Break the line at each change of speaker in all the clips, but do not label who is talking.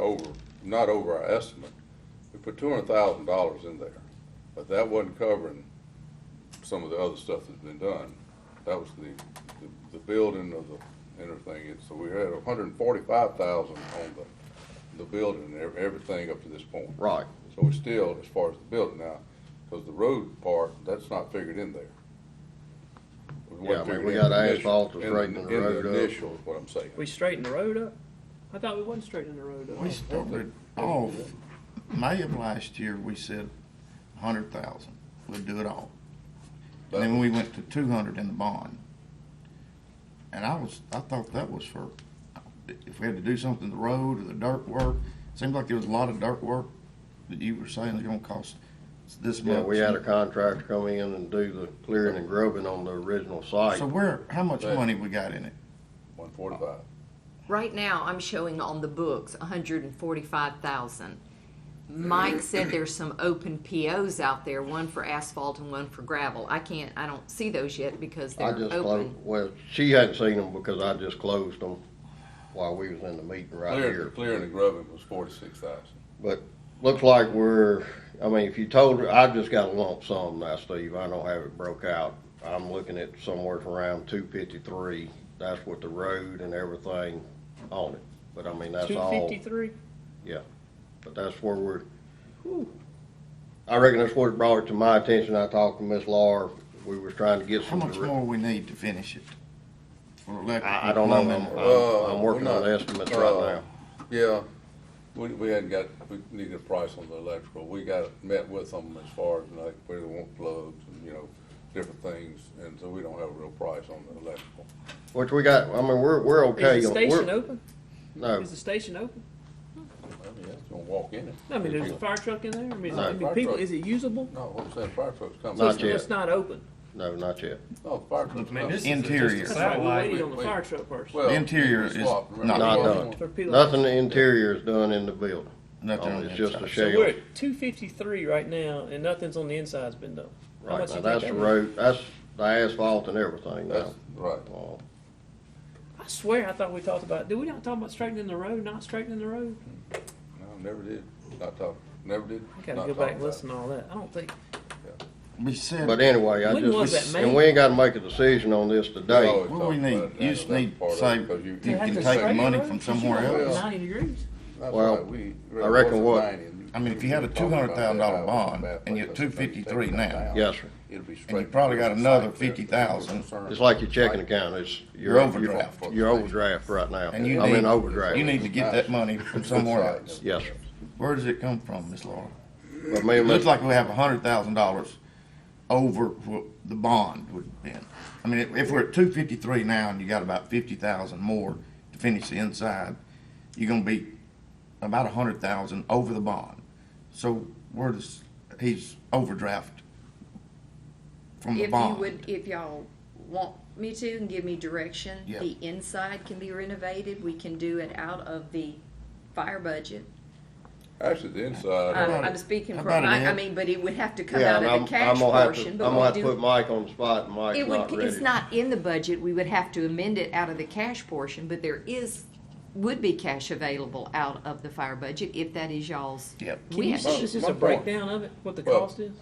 over, not over our estimate. We put two hundred thousand dollars in there, but that wasn't covering some of the other stuff that's been done. That was the, the- the building of the inner thing, and so we had a hundred and forty-five thousand on the, the building and ev- everything up to this point.
Right.
So we still, as far as the building now, because the road part, that's not figured in there. It wasn't
Yeah, I mean,
figured
we
in
got
the initial-
asphalt
in
to
the-
straighten the road
In
up.
the initial, is what I'm saying.
We straightened the road up? I thought we wasn't straightening the road
We
up.
started off, May of last year, we said a hundred thousand, we'll do it all. And then we went to two hundred in the bond. And I was, I thought that was for, if we had to do something, to the road or the dirt work, seemed like there was a lot of dirt work that you were saying was gonna cost this much.
Yeah, we had a contractor come in and do the clearing and grubbing on the original site.
So where, how much
Right.
money we got in it?
One forty-five.
Right now, I'm showing on the books hundred and forty-five thousand. Mike said there's some open POs out there, one for asphalt and one for gravel. I can't, I don't see those yet because
I
they're
just closed,
open.
well, she hadn't seen them because I just closed them while we was in the meeting right
Clearing,
here.
clearing and grubbing was forty-six thousand.
But looks like we're, I mean, if you told her, I've just got a lump sum now, Steve, I don't have it broke out. I'm looking at somewhere from around two fifty-three, that's with the road and everything on it. But I mean, that's
Two
all.
fifty-three?
Yeah, but that's where we're, I reckon that's what brought it to my attention, I talked to Miss Laura, we was trying to get
How
some.
much more we need to finish it? For electrical.
I, I don't know, I'm,
plumbing?
Uh,
I'm, I'm working
we're
on
not-
estimates
uh,
right now.
Yeah, we, we hadn't got, we needed a price on the electrical, we got, met with them as far as like where they want plugs and, you know, different things, and so we don't have a real price on the electrical.
Which we got, I mean, we're, we're okay.
Is the
on-
station
we're-
open?
No,
Is the station open?
I mean, that's gonna walk in it.
I mean, there's a fire truck in there? I mean, I
No.
mean, people, is it usable?
No, what I'm saying, fire trucks coming.
So
Not
it's-
yet.
It's not open.
no, not yet.
No, the fire trucks
Man, this
coming.
is a-
Interior.
just a
That's right, we're
satellite.
waiting on the
Wait,
fire truck first.
Well,
The interior
we
is
swapped, remember?
not
Not
Swapped
For
done.
people-
Nothing in the interior is done in the building.
Nothing
Oh,
on the
it's just
inside.
a
So we're
shell.
at two fifty-three right now, and nothing's on the inside's been done. How
Right
much
now,
you
that's
think
the
that was?
road, that's the asphalt and everything now.
That's, right,
Uh,
I swear, I thought we talked about, did we not talk about straightening the road, not straightening the road?
no, never did, not talk, never did.
I gotta
not
go
talk
back and
about it.
listen to all that. I don't think,
We said.
But anyway, I
When was
just,
that
and
made?
we ain't gotta make a decision on this
We
today.
always
What
talk
we
about it,
need, you
and
just
that's
need to
part of it,
say-
'cause you-
You
They have
can
to
take
straighten
money
the road,
from
'cause
somewhere
you don't
else.
go Ninety degrees.
That's
Well,
right, we-
I reckon what-
I mean, if you had a $200,000 bond and you're at $253 now,
Yes, sir.
It'd be
And you
straight-
probably got another
It's like
fifty thousand,
concern.
It's like your checking account, it's.
Your overdraft.
Your overdraft right now.
and you
I'm in
need,
overdraft.
you need to get that money from somewhere else.
Yes, sir.
Where does it come from, Miss Laura?
But me
It
and
looks
Miss,
like we have a hundred thousand dollars over what the bond would have been. I mean, if- if we're at two fifty-three now and you got about fifty thousand more to finish the inside, you're gonna be about a hundred thousand over the bond. So where does, he's overdraft from the
If you
bond.
would, if y'all want me to and give me direction,
Yeah.
the inside can be renovated. We can do it out of the fire budget.
Actually, the inside,
I'm,
about
I'm
it?
speaking
How about
from,
it,
I, I
Ed?
mean, but it would have to come
yeah,
out
and
of
I'm,
the
I'm
cash
gonna have to,
portion.
I'm
but
gonna
we
have to
do-
put Mike on the spot, and Mike's
It
not
would,
ready.
it's not in the budget, we would have to amend it out of the cash portion, but there is, would be cash available out of the fire budget if that is y'all's
Yep.
Can you
wish.
send us just
my
a
point-
breakdown of it, what the
Well,
cost is?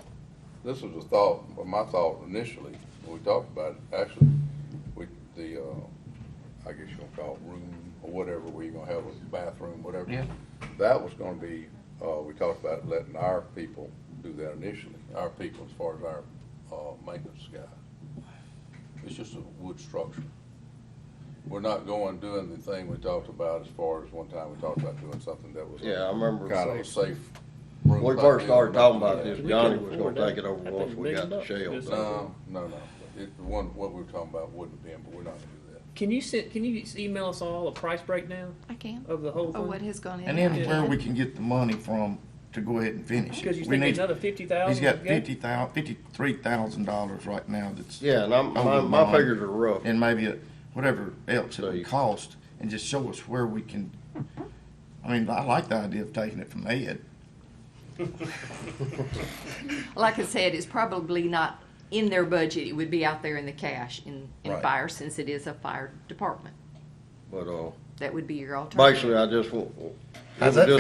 this was a thought, well, my thought initially, when we talked about it, actually, we, the, uh, I guess you're gonna call it room or whatever, where you're gonna have a bathroom, whatever.
Yeah.
That was gonna be, uh, we talked about letting our people do that initially, our people as far as our, uh, maintenance guys. It's just a wood structure. We're not going, doing the thing we talked about as far as one time we talked about doing something that was.
Yeah, I remember.
Kind of a safe. room
When we
type
first
deal.
started talking about this,
We couldn't
Johnny was
afford
gonna
that.
take it over
That
once
thing's
we got
million
the
bucks.
shell.
Just-
No, Um, no, no. It, the one, what we were talking about wouldn't have been, but we're not gonna do that.
Can you send, can you email us all a price breakdown
I can,
of the whole
or what
thing?
has gone in.
And then where we can get the money from to go ahead and finish it.
Because you
We
think
need-
another fifty thousand?
He's got fifty thousand, fifty-three thousand dollars right now that's.
Yeah, and I'm, my,
over the
my
bond.
figures are rough.
And maybe a- whatever else it
So you-
would cost, and just show us where we can, I mean, I like the idea of taking it from Ed.
Like I said, it's probably not in their budget, it would be out there in the cash in, in
Right.
fire, since it is a fire department.
But, uh,
That would be your alternative.
basically, I just want, it
How's
was
that
just